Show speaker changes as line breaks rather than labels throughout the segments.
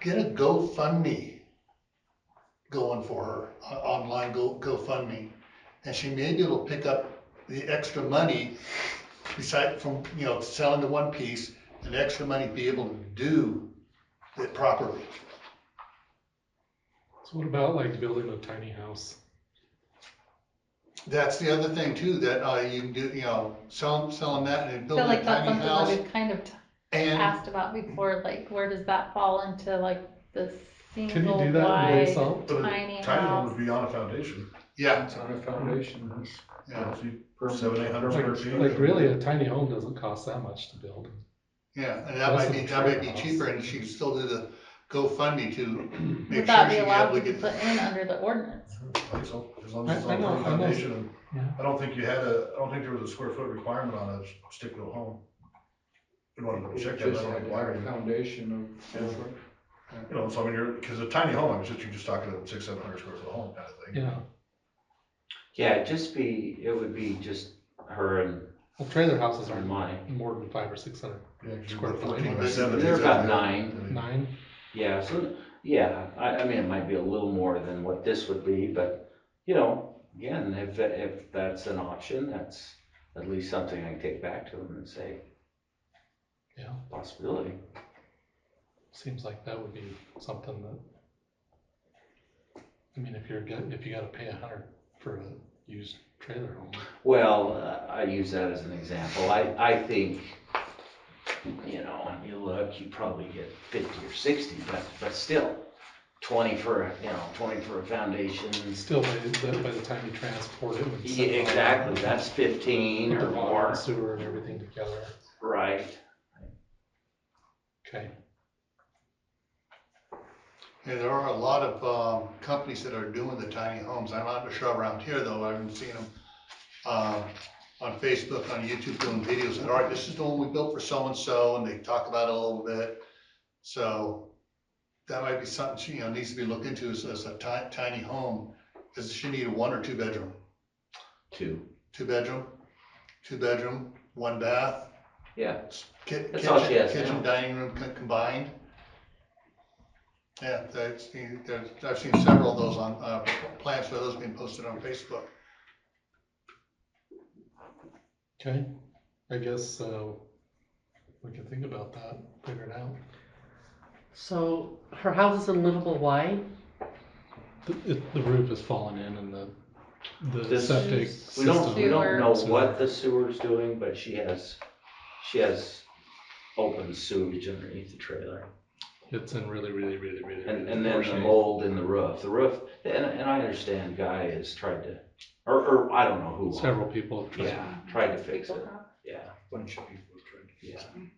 get a GoFundMe going for her, o- online Go, GoFundMe. And she maybe will pick up the extra money beside from, you know, selling the one piece, and extra money be able to do it properly.
So what about like building a tiny house?
That's the other thing too, that, uh, you can do, you know, sell, selling that and
I
build
feel
a
like that's
tiny
something that
house
we've kind of
and,
asked about before, like where does that fall into like the
Can you
single
do that in
wide
basalt?
But a
tiny
Tiny one would
house?
be on a foundation,
yeah,
It's on a foundation.
you know, if you-
Perfect.
seven, eight hundred square
Like,
feet.
like really, a tiny home doesn't cost that much to build.
yeah, and that might
Less than
be,
a
that might be
trailer house.
cheaper, and she can still do the GoFundMe to make
Would
sure
that
she can
be allowed
able
to
to
be
get.
put in under the ordinance?
I think so, as long as it's
I- I
on
know,
a
I know.
foundation. and
Yeah.
I don't think you had a, I don't think there was a square foot requirement on a stick built home. You want to check that, I
Just
don't
had
know
to have
why.
a foundation of.
You know, so I mean, you're, because a tiny home, I was just, you're just talking a six, seven hundred square foot home kind of thing.
Yeah,
Yeah, it'd just be, it would be just her and,
well, trailer houses
her and
aren't
mine.
more than five or six hundred,
Yeah, 'cause you
Square
go
foot.
14 by 7,
They're about
exactly.
nine.
nine.
Yeah, so, yeah, I, I mean, it might be a little more than what this would be, but, you know, again, if, that- if that's an option, that's at least something I can take back to them and say.
Yeah.
Possibility.
Seems like that would be something that. I mean, if you're, get- if you gotta pay a hundred for a used trailer home,
Well, uh, I use that as an example. I, I think, you know, you look, you probably get fifty or sixty, but, but still, twenty for, a you know, twenty for a foundation.
and still by, the- by the time you transport it. and
Yeah,
set it all
exactly,
up,
that's fifteen
Put the
or
water
more,
and sewer and everything together,
right?
okay.
Yeah, there are a lot of, um, companies that are doing the tiny homes. I'm not sure around here though, I haven't seen them. Um, on Facebook, on YouTube doing videos, and all right, this is the one we built for so-and-so, and they talk about it a little bit. So that might be something she, you know, needs to be looked into as, as a ti- tiny home. Does she need a one or two bedroom?
Two.
Two bedroom, two bedroom, one bath.
Yeah.
Ki-
That's all she
kitchen-
has now.
Kitchen, dining room co- combined. Yeah, that's, the- there's, I've seen several of those on, uh, plans for those being posted on Facebook.
Okay, I guess, uh, we can think about that, figure it out.
So her house is in livable Hawaii.
The, it- the roof has fallen in and the, the
This-
septic
We don't, we
system.
don't know
Sewer.
what the sewer's doing, but she has, she has open sewage underneath the trailer.
It's in really, really, really, really.
And,
really
and then
poor
the
shape.
mold in the roof, the roof, and, and I understand Guy has tried to, or, or I don't know who.
Several people have tried.
Yeah, tried to fix
People
it,
have.
yeah,
Bunch of people trying to.
yeah.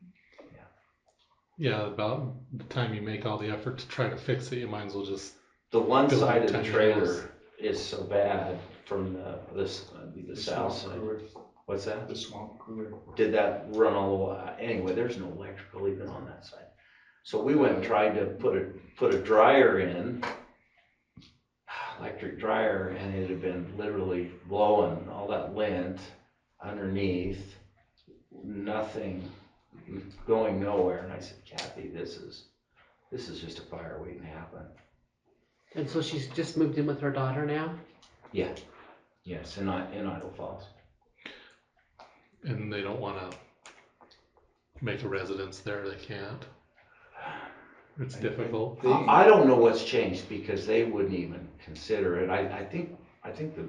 Yeah, about the time you make all the effort to try to fix it, you might as well just.
The one
Building
side of the
tiny house.
trailer is so bad from the, this, uh, the
The
south
swamp
side,
cooler-
what's that?
The swamp cooler.
did that run all the way, anyway, there's no electrical even on that side. So we went and tried to put a, put a dryer in, electric dryer, and it had been literally blowing all that lint underneath, nothing, going nowhere, and I said, Kathy, this is, this is just a fire waiting to happen.
And so she's just moved in with her daughter now.
Yes, in I, in Idle Falls.
And they don't wanna make a residence there, they can't. It's
I- I
difficult.
think-
I I don't know what's changed because they wouldn't even consider it. I, I think, I think the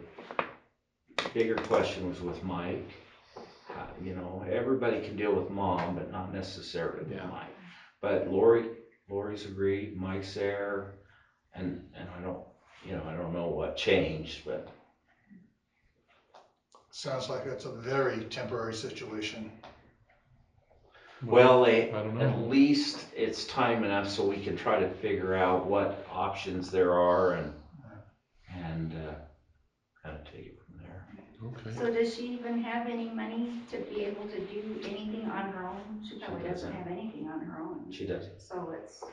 bigger question was with Mike. Uh, You know, everybody can deal with mom, but not necessarily with
Yeah.
Mike. But Lori, Lori's agreed, Mike's there, and, and I don't, you know, I don't know what changed, but
Sounds like that's a very temporary situation.
well, they,
I don't
At
know.
least it's time enough so we can try to figure out what options there are and, and, uh, kind of take it from there.
Okay,
So does she even have any money to be able to do anything on her own? She probably
doesn't.
doesn't have anything on her own,
She does.
so it's.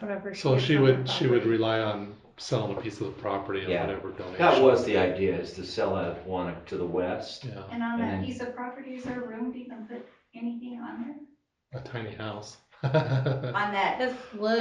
However.
so
gets
she
on her
would, she would
property.
rely on selling a piece of the property and
Yeah.
whatever donation.
That was the idea, is to sell that one to the west.
Yeah,
And on
And-
that piece of property, is there room to even put anything on there?
a tiny house.
On that
This li-